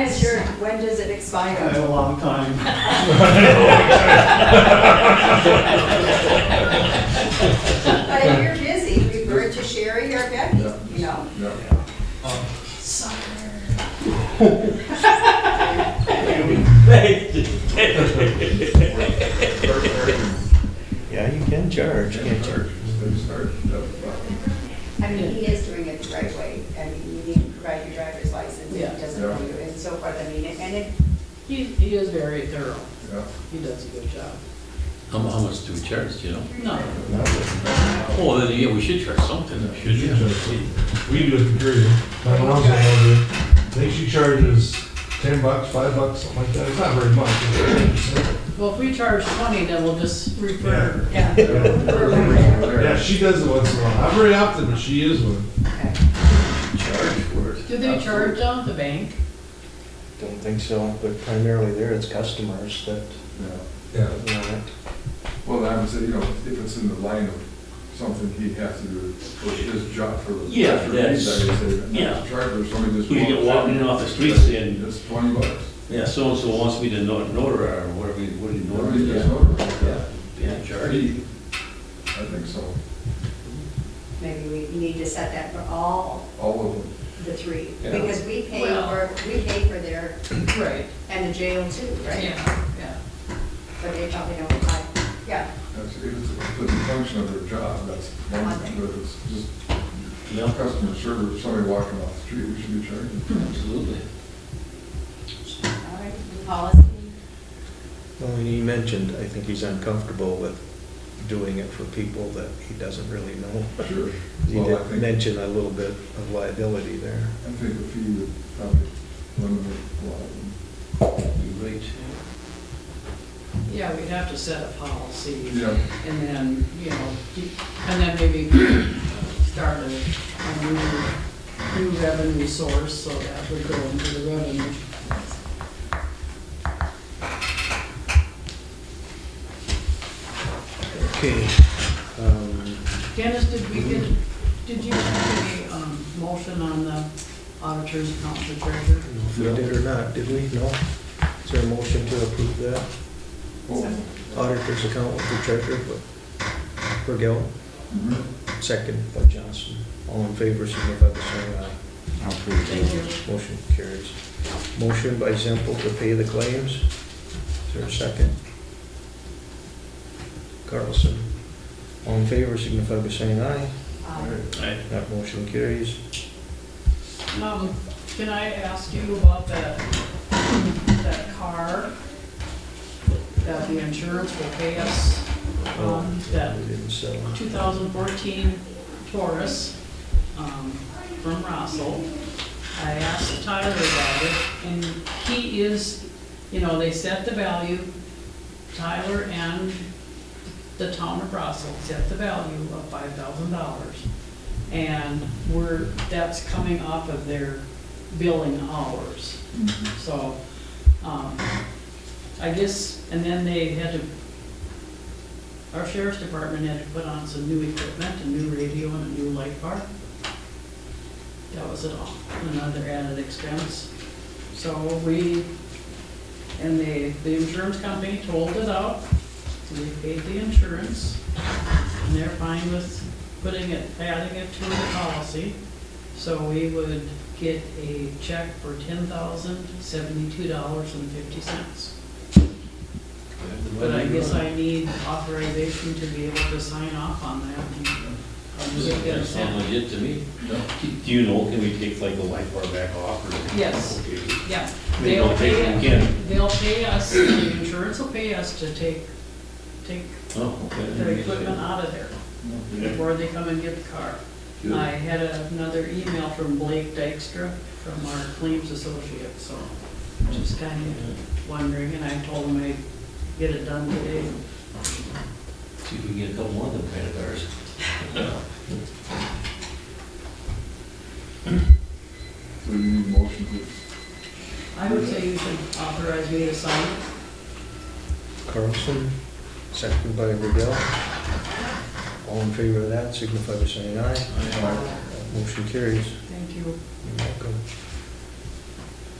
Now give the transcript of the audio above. When does it That's expire? a long time. But if you're busy, refer to Sherry or Becky, you know? Yeah, you can charge, can't you? I mean, he is doing it the right way. I mean, you need to provide your driver's license, if he doesn't know you, and so forth. I mean, and it, He, he is very thorough. He does a good job. How, mu- how much do we charge, do you know? No, Oh, then, yeah, we should charge something. Should you? We do it for free. My mom's an older, I think she charges ten bucks, five bucks, something like that, it's not very much. well, if we charge twenty, then we'll just refer. yeah. Yeah, she does it once in a while, I'm very often, but she is one. Charge for it. Do they charge on the bank? Don't think so, but primarily there, it's customers that Yeah. want it. Well, I would say, you know, if it's in the line of something he has to do for his job, for. Yeah, for that's- these, I would say, but not yeah. Charge or somebody just. You get walks in, walking in off the street saying- It's twenty bucks. Yeah, so-and-so wants me to not- notarize, or whatever, you- what do you Nobody gets notarize? over it. Yeah, yeah, Or charge. he, I think so, Maybe we need to set that for all all of them. the three, Yeah. because we pay Well- for, we pay for their, Right. and the jail too, right? Yeah, yeah. But they probably don't apply, yeah. That's, if it's if it's a function of their job, that's one thing, but it's just Yeah, customer service, somebody walking off the street, we should be charging. absolutely. All right, and policy, Well, and he mentioned, I think he's uncomfortable with doing it for people that he doesn't really know. Sure. He Well, I did think- mention a little bit of liability there. I think the fee would probably eliminate a lot of them. You're right. Yeah, we'd have to set a policy Yeah, and then, you know, and then maybe start a, a new, new revenue source, so that would go into the revenue. Okay. um, Dennis, did we get, did you have a, um, motion on the auditor's account for treasurer? I don't know If we did or not, did we? No? Is there a motion to approve that well, auditor's account with the treasurer, but for Gil? mhm. Second by Johnson. All in favor, signify by saying aye. Thank you. Motion carries. Motion by Zempel to pay the claims. Is there a second? Carlson. All in favor, signify by saying aye. Uh, um, Aye. That motion carries. Um, can I ask you about that, that car that the insurance will pay us? Um, that We didn't sell. 2014 Taurus um, from Russell. I asked Tyler about it, and he is, you know, they set the value, Tyler and the town of Russell set the value of $5,000. And we're, that's coming off of their billing hours. Mm-hmm. So, um, I guess, and then they had to our sheriff's department had to put on some new equipment, a new radio and a new light bar. That was it all, another added expense. So we, and they, the insurance company told it out, we paid the insurance, and they're fine with putting it, adding it to the policy. So we would get a check for ten thousand seventy-two dollars and fifty cents. But I guess I need authorization to be able to sign off on that. and I'll just get That it sounds sent. legit to me. Yeah. Do you know, can we take like the life bar back off or? Yes. Okay. Yeah, Maybe they'll I'll take pay, it again. they'll pay us, the insurance will pay us to take, take Oh, okay. their equipment out of there before they come and get the car. Good. I had another email from Blake Dykstra from our claims associate, so just kind of wondering, and I told him I'd get it done today. See if we can get a couple more of them kind of cars. So you need a motion to I would say you should authorize me to sign it. Carlson, second by Riddell. All in favor of that, signify by saying aye. Aye. That Motion carries. Thank you. You're welcome.